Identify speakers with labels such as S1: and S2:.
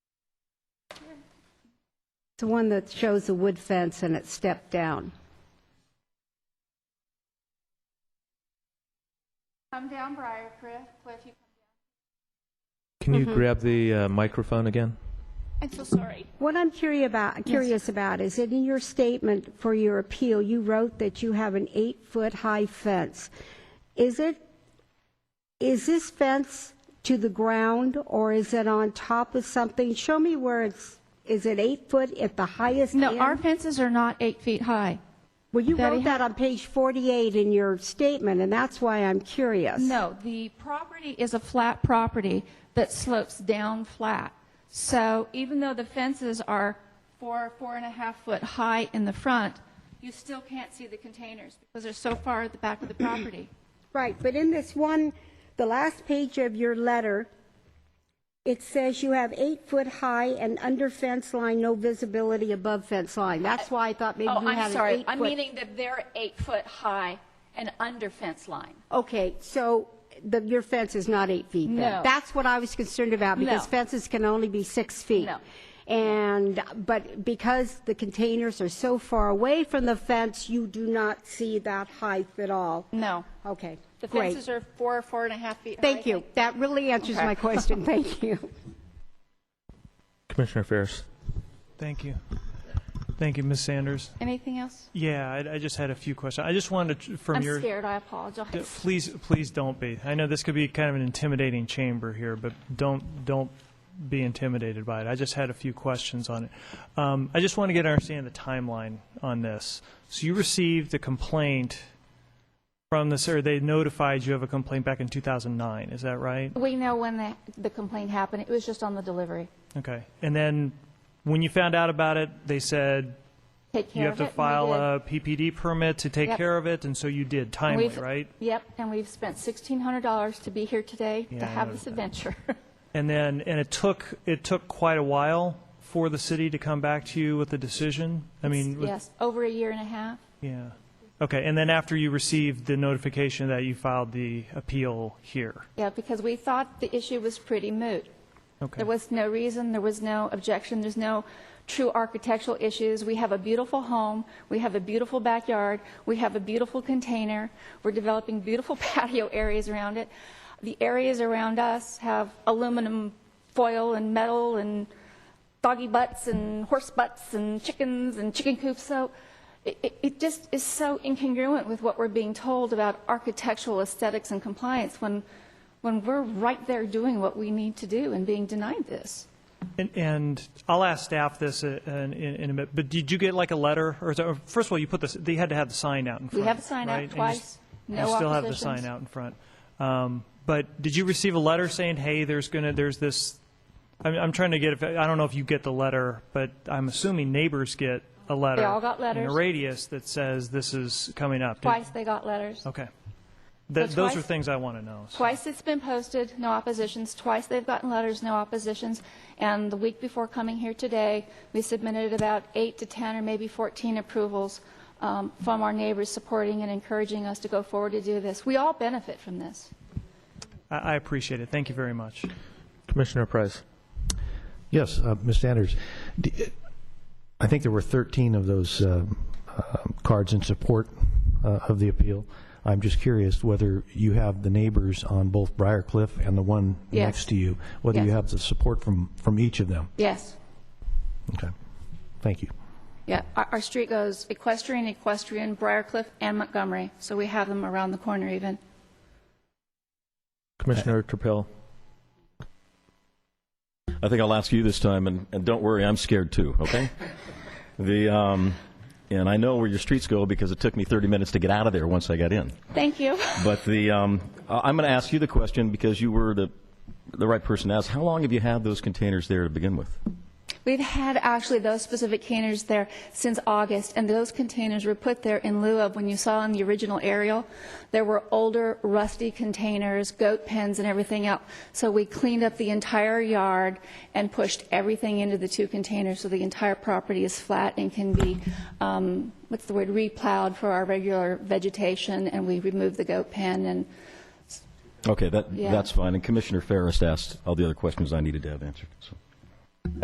S1: the one that shows the wood fence and it stepped down.
S2: Come down Briarcliff, Cliff, you
S3: Can you grab the uh, microphone again?
S2: I'm so sorry.
S1: What I'm curious about, curious about is that in your statement for your appeal, you wrote that you have an eight-foot-high fence. Is it, is this fence to the ground, or is it on top of something? Show me where it's, is it eight foot at the highest
S2: No,
S1: end?
S2: our fences are not eight feet high.
S1: Well, you
S2: Betty,
S1: wrote that on page 48 in your statement, and that's why I'm curious.
S2: No, the property is a flat property that slopes down flat. So even though the fences are four, four and a half foot high in the front, you still can't see the containers because they're so far at the back of the property.
S1: Right, but in this one, the last page of your letter, it says you have eight foot high and under fence line, no visibility above fence line. That's why I thought maybe
S4: Oh,
S1: you had
S4: I'm
S1: an
S4: sorry.
S1: eight
S4: I'm
S1: foot-
S4: meaning that they're eight foot high and under fence line.
S1: Okay, so the, your fence is not eight feet then?
S4: No.
S1: That's what I was concerned about, because
S4: No.
S1: fences can only be six feet.
S4: No.
S1: And, but because the containers are so far away from the fence, you do not see that height at all.
S2: No.
S1: Okay,
S4: The
S1: great.
S4: fences are four, four and a half feet high.
S1: Thank you. That really answers my question. Thank you.
S3: Commissioner Ferris.
S5: Thank you. Thank you, Ms. Sanders.
S2: Anything else?
S5: Yeah, I, I just had a few questions. I just wanted to, from
S2: I'm
S5: your.
S2: scared, I apologize.
S5: Please, please don't be. I know this could be kind of an intimidating chamber here, but don't, don't be intimidated by it. I just had a few questions on it. Um, I just want to get an understanding of the timeline on this. So you received a complaint from this, or they notified you of a complaint back in 2009, is that right?
S2: We know when the, the complaint happened. It was just on the delivery.
S5: Okay. And then when you found out about it, they said,
S2: Take
S5: You
S2: care
S5: have
S2: of it.
S5: to
S2: and we
S5: file
S2: did.
S5: a PPD permit to take
S2: Yep.
S5: care of it, and so you did timely,
S2: We've-
S5: right?
S2: Yep, and we've spent $1,600 to be here today
S5: Yeah,
S2: to
S5: I
S2: have
S5: noticed
S2: this
S5: that.
S2: adventure.
S5: And then, and it took, it took quite a while for the city to come back to you with a decision? I mean, with-
S2: Yes, over a year and a half.
S5: yeah. Okay, and then after you received the notification that you filed the appeal here?
S2: Yeah, because we thought the issue was pretty moot.
S5: Okay.
S2: There was no reason, there was no objection, there's no true architectural issues. We have a beautiful home, we have a beautiful backyard, we have a beautiful container, we're developing beautiful patio areas around it. The areas around us have aluminum foil and metal and doggy butts and horse butts and chickens and chicken coops, so it- it it just is so incongruent with what we're being told about architectural aesthetics and compliance when when we're right there doing what we need to do and being denied this.
S5: And, and I'll ask staff this uh, in, in in a minute, but did you get like a letter, or, is that- or first of all, you put this, they had to have the sign out in front.
S2: have a sign out
S5: right? And you
S2: twice,
S5: s-
S2: no
S5: You still have the
S2: oppositions.
S5: sign out in front. Um, But did you receive a letter saying, hey, there's gonna, there's this, I'm, I'm trying to get, if- I don't know if you get the letter, but I'm assuming neighbors get a letter.
S2: all got
S5: In
S2: letters.
S5: a radius that says this is coming up. Did-
S2: Twice they got letters.
S5: Okay. Th-
S2: So
S5: Those
S2: twice-
S5: are things I want to know. so.
S2: Twice it's been posted, no oppositions. Twice they've gotten letters, no oppositions. And the week before coming here today, we submitted about eight to 10 or maybe 14 approvals um, from our neighbors supporting and encouraging us to go forward to do this. We all benefit from this.
S5: I, I appreciate it. Thank you very much.
S3: Commissioner Price.
S6: Yes, uh, Ms. Sanders. D- I think there were 13 of those uh, uh, cards in support uh, of the appeal. I'm just curious whether you have the neighbors on both Briarcliff and the one
S2: Yes.
S6: next to you, whether you
S2: Yes.
S6: have the support from, from each of them.
S2: Yes.
S6: Okay. Thank you.
S2: Yeah, our, our street goes equestrian, equestrian, Briarcliff, and Montgomery. So we have them around the corner even.
S3: Commissioner Trapill.
S7: I think I'll ask you this time, and, and don't worry, I'm scared too, okay? the, um, and I know where your streets go because it took me 30 minutes to get out of there once I got in.
S2: Thank you.
S7: But the, um, I- I'm going to ask you the question because you were the, the right person to ask. How long have you had those containers there to begin with?
S2: We've had actually those specific containers there since August, and those containers were put there in lieu of, when you saw in the original aerial, there were older rusty containers, goat pens and everything else. So we cleaned up the entire yard and pushed everything into the two containers, so the entire property is flat and can be, um, what's the word, replowed for our regular vegetation, and we removed the goat pen and
S7: Okay, that,
S2: Yeah.
S7: that's fine. And Commissioner Ferris asked all the other questions I needed to have answered. So.